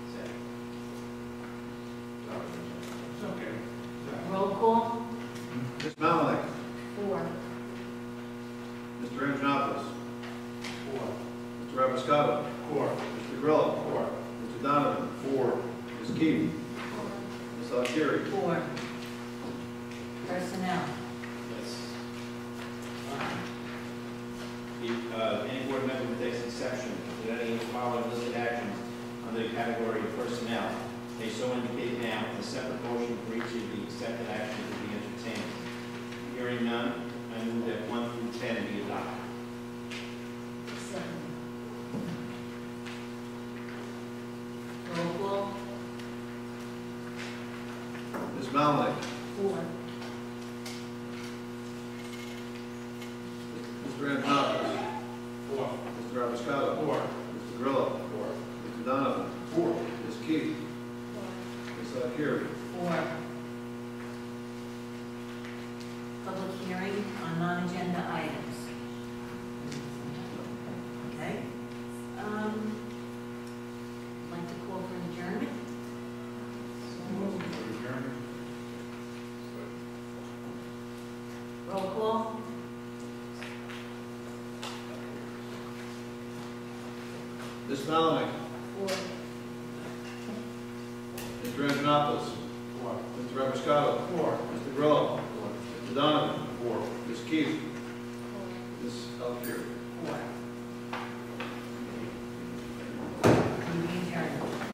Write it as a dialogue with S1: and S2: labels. S1: Keating. Ms. Augmiron.
S2: Four. Personnel.
S1: Yes. If, uh, any board member takes exception to any of the following listed actions under the category of personnel, they so indicate now, and a separate motion for each of the accepted actions will be entertained. Hearing none, I move that one through ten be adopted.
S2: Roll call.
S3: Ms. Malinick.
S2: Four.
S3: Mr. Antonopoulos.
S1: Four.
S3: Mr. Abiscato.
S1: Four.
S3: Mr. Grillo.
S1: Four.
S3: Mr. Donovan. Four. Ms. Key. Ms. Akhiri.
S2: Four. Public hearing on non-agenda items. Okay? Um, I'd like to call for an adjournment. Roll call.
S3: Ms. Malinick.
S2: Four.
S3: Mr. Antonopoulos.
S1: Four.
S3: Mr. Abiscato.
S1: Four.
S3: Mr. Grillo. Mr. Donovan.
S1: Four.
S3: Ms. Key. Ms. Akhiri.
S2: Four.